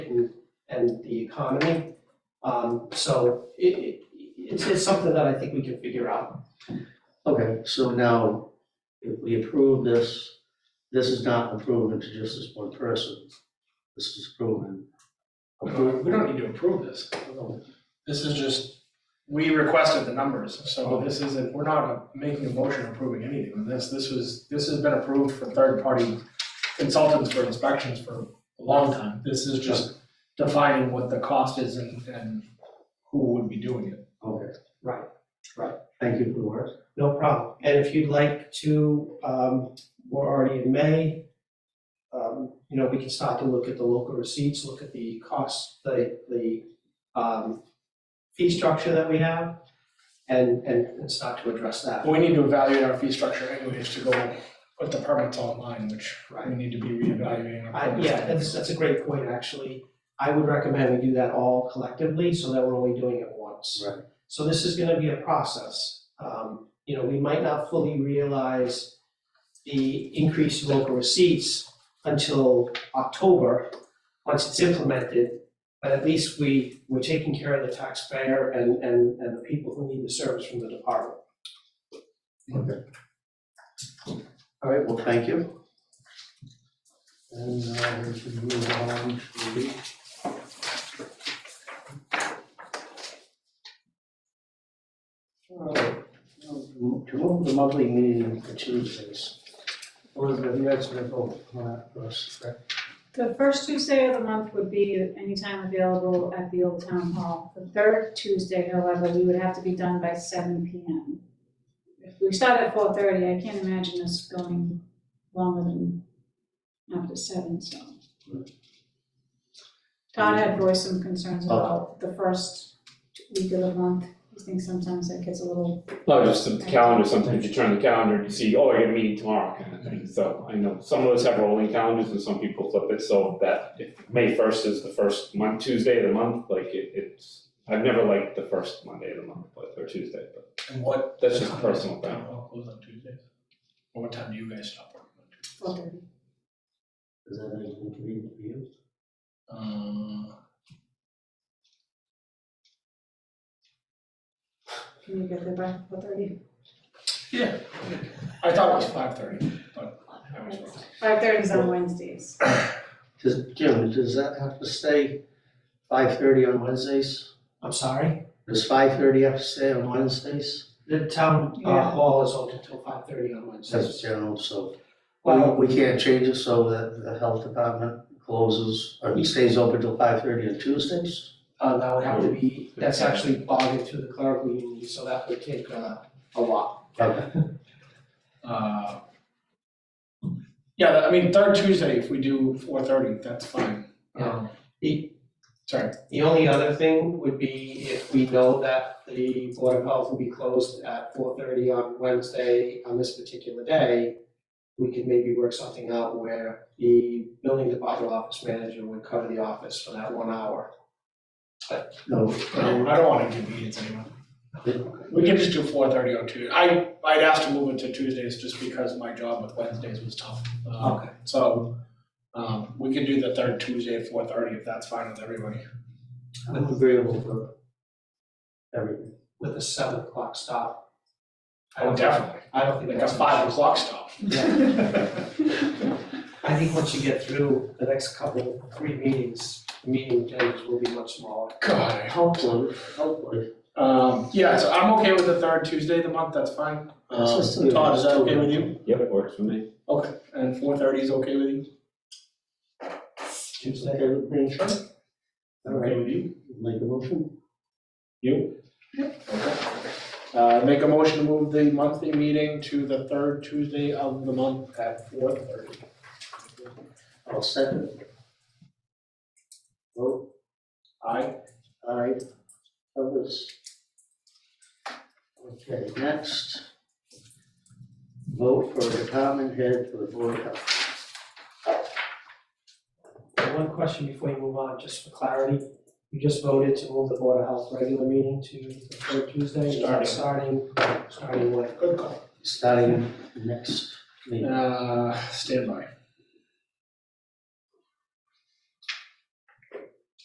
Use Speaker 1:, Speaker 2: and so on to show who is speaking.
Speaker 1: and the economy. Um, so it, it, it's, it's something that I think we can figure out.
Speaker 2: Okay, so now, if we approve this, this is not approving to just this one person. This is approving.
Speaker 3: We don't need to approve this. This is just, we requested the numbers, so this isn't, we're not making a motion approving anything on this. This was, this has been approved for third-party consultants for inspections for a long time. This is just defining what the cost is and, and who would be doing it.
Speaker 2: Okay.
Speaker 1: Right, right.
Speaker 2: Thank you for the work.
Speaker 1: No problem. And if you'd like to, um, we're already in May. Um, you know, we can start to look at the local receipts, look at the costs, the, the, um, fee structure that we have and, and, and start to address that.
Speaker 3: But we need to evaluate our fee structure anyways to go put the permits online, which we
Speaker 1: Right.
Speaker 3: need to be reevaluating. our
Speaker 1: I, yeah, that's, that's a great point, actually. I would recommend we do that all collectively so that we're only doing it once.
Speaker 2: Right.
Speaker 1: So this is gonna be a process. Um, you know, we might not fully realize the increased local receipts until October, once it's implemented. But at least we, we're taking care of the taxpayer and, and, and the people who need the service from the department.
Speaker 2: All right, well, thank you. And uh, we can move on to the. All right, um, To move the monthly meeting to Tuesdays. Elizabeth, you guys gonna go on that for us, correct?
Speaker 4: The first Tuesday of the month would be anytime available at the old town hall. The third Tuesday, however, we would have to be done by seven P M. If we start at four thirty, I can't imagine this going longer than after seven, so. Todd had voiced some concerns about the first week of the month. He thinks sometimes that gets a little,
Speaker 5: No, just the calendar, sometimes you turn the calendar and you see, oh, I got a meeting tomorrow kind of thing, so I know some of us have rolling calendars and some people flip it, so that if May first is the first mon- Tuesday of the month, like it it's, I've never liked the first Monday of the month, but or Tuesday, but
Speaker 3: And what?
Speaker 5: that's just a personal thing.
Speaker 3: Town hall closed on Tuesdays? Or what time do you guys stop working on Tuesdays?
Speaker 4: four thirty.
Speaker 2: Is that any inconvenient for you?
Speaker 3: Uh,
Speaker 4: Can you get there by four thirty?
Speaker 3: yeah, I thought it was five thirty, but I was wrong.
Speaker 4: Five thirty is on Wednesdays.
Speaker 2: Does, Jim, does that have to stay five thirty on Wednesdays?
Speaker 1: I'm sorry,
Speaker 2: Does five thirty have to stay on Wednesdays?
Speaker 1: the town uh,
Speaker 4: Yeah.
Speaker 1: hall is open until five thirty on Wednesdays.
Speaker 2: That's general, so we,
Speaker 1: Well,
Speaker 2: we can't change it so that the health department closes or stays open till five thirty on Tuesdays?
Speaker 1: Uh, that would have to
Speaker 3: Oh,
Speaker 1: be, that's actually bogged through the clerical union, so that would take, uh, a lot.
Speaker 2: Okay.
Speaker 3: Uh, Yeah, I mean, third Tuesday, if we do four thirty, that's fine. Um,
Speaker 1: The,
Speaker 3: Sorry,
Speaker 1: the only other thing would be if we know that the Board of Health will be closed at four thirty on Wednesday, on this particular day, we could maybe work something out where the building department office manager would cover the office for that one hour.
Speaker 2: No,
Speaker 3: I don't I don't wanna give meetings anymore. We can just do four thirty on Tuesday. I, I'd asked to move it to Tuesdays just because my job with Wednesdays was tough. Uh,
Speaker 1: Okay.
Speaker 3: So, um, we can do the third Tuesday at four thirty if that's fine with everybody.
Speaker 2: I'm agreeable for everything.
Speaker 1: With a seven o'clock stop. I
Speaker 3: Oh,
Speaker 1: don't,
Speaker 3: definitely,
Speaker 1: I don't think
Speaker 3: like a
Speaker 1: that's.
Speaker 3: five o'clock stop.
Speaker 1: I think once you get through the next couple, three meetings, meeting days will be much smaller.
Speaker 3: God, I
Speaker 2: Hopefully, hopefully.
Speaker 3: Um, yeah, so I'm okay with the third Tuesday of the month, that's fine.
Speaker 2: Uh,
Speaker 3: Um,
Speaker 2: It's just-
Speaker 3: Todd, is that okay with you?
Speaker 5: Yep, it works for me.
Speaker 3: Okay, and four thirty is okay with you?
Speaker 2: Tuesday, everything, sure. All right,
Speaker 3: Okay with you?
Speaker 2: make a motion.
Speaker 3: You? Okay. Uh, make a motion to move the monthly meeting to the third Tuesday of the month at four thirty.
Speaker 2: I'll second. Vote.
Speaker 3: Aye.
Speaker 2: Aye, others. Okay, next. Vote for a department head for the board of health.
Speaker 1: And One question before you move on, just for clarity, you just voted to move the Board of Health regular meeting to the third Tuesday, is that starting, starting when?
Speaker 3: Good call.
Speaker 2: starting next meeting.
Speaker 3: Uh, standby.